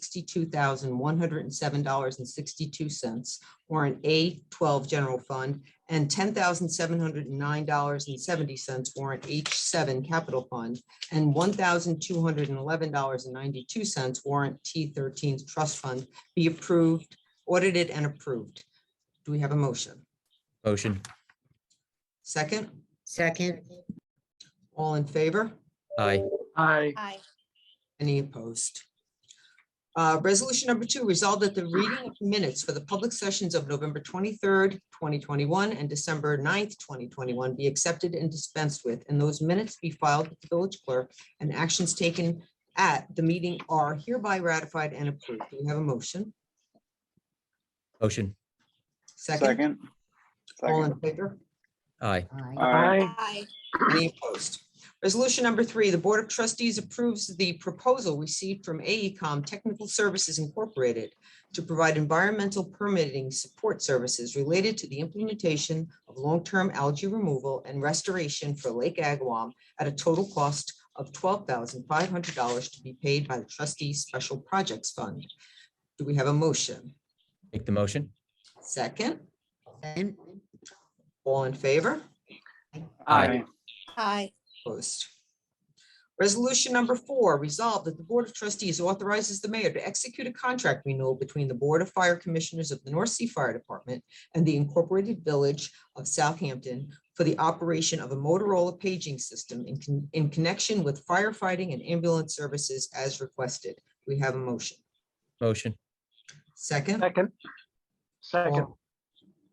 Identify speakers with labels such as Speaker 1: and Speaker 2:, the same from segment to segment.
Speaker 1: sixty-two thousand, one hundred and seven dollars and sixty-two cents, warrant A twelve general fund, and ten thousand, seven hundred and nine dollars and seventy cents, warrant H seven capital fund, and one thousand, two hundred and eleven dollars and ninety-two cents, warrant T thirteen trust fund, be approved, audited and approved. Do we have a motion?
Speaker 2: Motion.
Speaker 1: Second,
Speaker 3: second,
Speaker 1: all in favor?
Speaker 2: Aye.
Speaker 4: aye,
Speaker 5: aye,
Speaker 1: Any opposed? Uh, Resolution number two, resolved that the reading of minutes for the public sessions of November twenty-third, twenty twenty-one and December 9th, twenty twenty-one be accepted and dispensed with, and those minutes be filed with the village clerk and actions taken at the meeting are hereby ratified and approved. Do we have a motion?
Speaker 2: Motion.
Speaker 1: Second,
Speaker 6: Second.
Speaker 1: all
Speaker 6: Second.
Speaker 1: in favor?
Speaker 2: Aye.
Speaker 3: aye,
Speaker 6: Aye.
Speaker 4: aye,
Speaker 5: aye,
Speaker 1: Any opposed? Resolution number three, the Board of Trustees approves the proposal received from E AECom Technical Services Incorporated to provide environmental permitting support services related to the implementation of long-term algae removal and restoration for Lake Agawam at a total cost of twelve thousand five hundred dollars to be paid by the trustees' Special Projects Fund. Do we have a motion?
Speaker 2: Make the motion.
Speaker 1: Second,
Speaker 3: second,
Speaker 1: all in favor?
Speaker 4: aye,
Speaker 5: aye,
Speaker 1: Opposed. Resolution number four, resolved that the Board of Trustees authorizes the mayor to execute a contract renewal between the Board of Fire Commissioners of the North Sea Fire Department and the Incorporated Village of Southampton for the operation of a Motorola paging system in, con- in connection with firefighting and ambulance services as requested. We have a motion.
Speaker 2: Motion.
Speaker 1: Second,
Speaker 4: second, second,
Speaker 1: all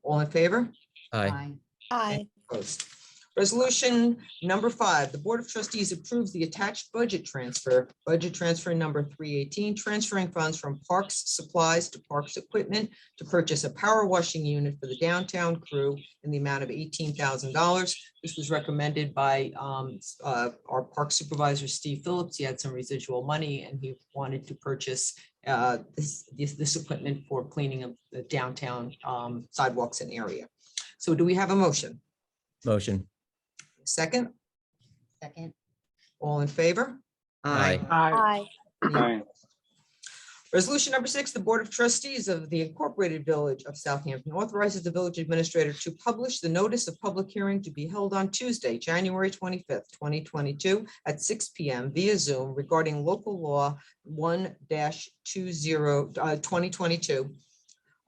Speaker 1: all in favor?
Speaker 2: Aye.
Speaker 3: aye,
Speaker 5: aye,
Speaker 1: Opposed. Resolution number five, the Board of Trustees approves the attached budget transfer, budget transfer number three eighteen, transferring funds from parks supplies to parks equipment to purchase a power washing unit for the downtown crew in the amount of eighteen thousand dollars. This was recommended by um, s- uh, our park supervisor, Steve Phillips. He had some residual money and he wanted to purchase uh, this, this- this equipment for cleaning of the downtown um, sidewalks and area. So do we have a motion?
Speaker 2: Motion.
Speaker 1: Second,
Speaker 3: second,
Speaker 1: all in favor?
Speaker 2: Aye.
Speaker 3: aye,
Speaker 4: aye,
Speaker 5: aye,
Speaker 6: Aye.
Speaker 1: Resolution number six, the Board of Trustees of the Incorporated Village of Southampton authorizes the village administrator to publish the notice of public hearing to be held on Tuesday, January twenty-fifth, twenty twenty-two at six P M via Zoom regarding local law one two zero, uh, twenty twenty-two.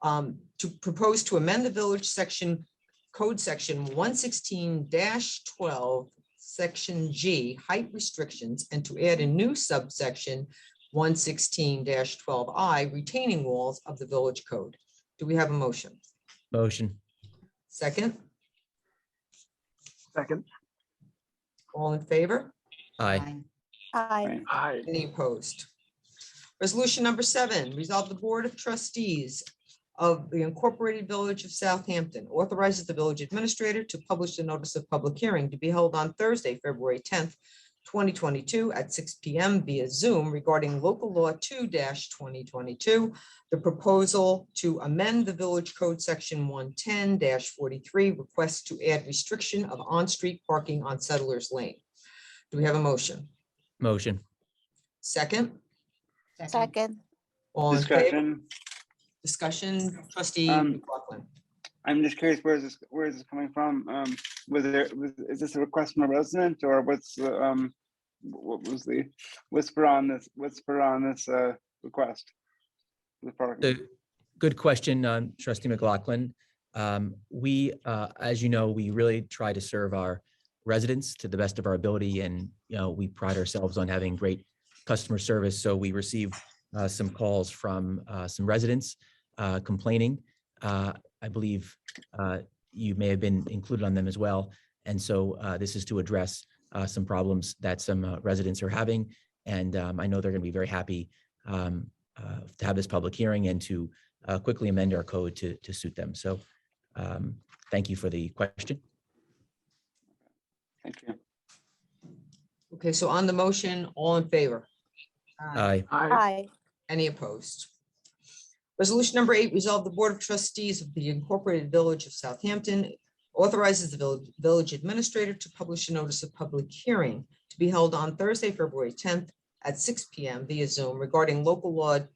Speaker 1: Um, to propose to amend the village section, code section one sixteen twelve, section G, height restrictions, and to add a new subsection one sixteen twelve I retaining walls of the village code. Do we have a motion?
Speaker 2: Motion.
Speaker 1: Second,
Speaker 4: second,
Speaker 1: all in favor?
Speaker 2: Aye.
Speaker 3: aye,
Speaker 5: aye,
Speaker 4: aye,
Speaker 1: Any opposed? Resolution number seven, resolve the Board of Trustees of the Incorporated Village of Southampton authorizes the village administrator to publish a notice of public hearing to be held on Thursday, February tenth, twenty twenty-two at six P M via Zoom regarding local law two twenty twenty-two, the proposal to amend the village code section one ten forty-three, request to add restriction of on-street parking on Settlers Lane. Do we have a motion?
Speaker 2: Motion.
Speaker 1: Second?
Speaker 3: second,
Speaker 5: second,
Speaker 1: All in favor?
Speaker 6: Discussion.
Speaker 1: Discussion, trustee
Speaker 6: Um,
Speaker 1: McLaughlin.
Speaker 6: I'm just curious, where is this, where is this coming from? Um, was there, was, is this a request from a resident or what's, the, um, what was the whisper on this, whisper on this, uh, request? The park.
Speaker 2: The, good question, um, trustee McLaughlin. Um, We, uh, as you know, we really try to serve our residents to the best of our ability and, you know, we pride ourselves on having great customer service. So we received uh, some calls from uh, some residents uh, complaining. Uh, I believe uh, you may have been included on them as well. And so uh, this is to address uh, some problems that some uh, residents are having. And um, I know they're going to be very happy um, uh, to have this public hearing and to uh, quickly amend our code to, to suit them. So um, thank you for the question.
Speaker 6: Thank you.
Speaker 1: Okay, so on the motion, all in favor? Uh,
Speaker 2: Aye.
Speaker 4: aye,
Speaker 5: aye,
Speaker 1: Any opposed? Resolution number eight, resolve the Board of Trustees of the Incorporated Village of Southampton authorizes the vill- village administrator to publish a notice of public hearing to be held on Thursday, February tenth at six P M via Zoom regarding local law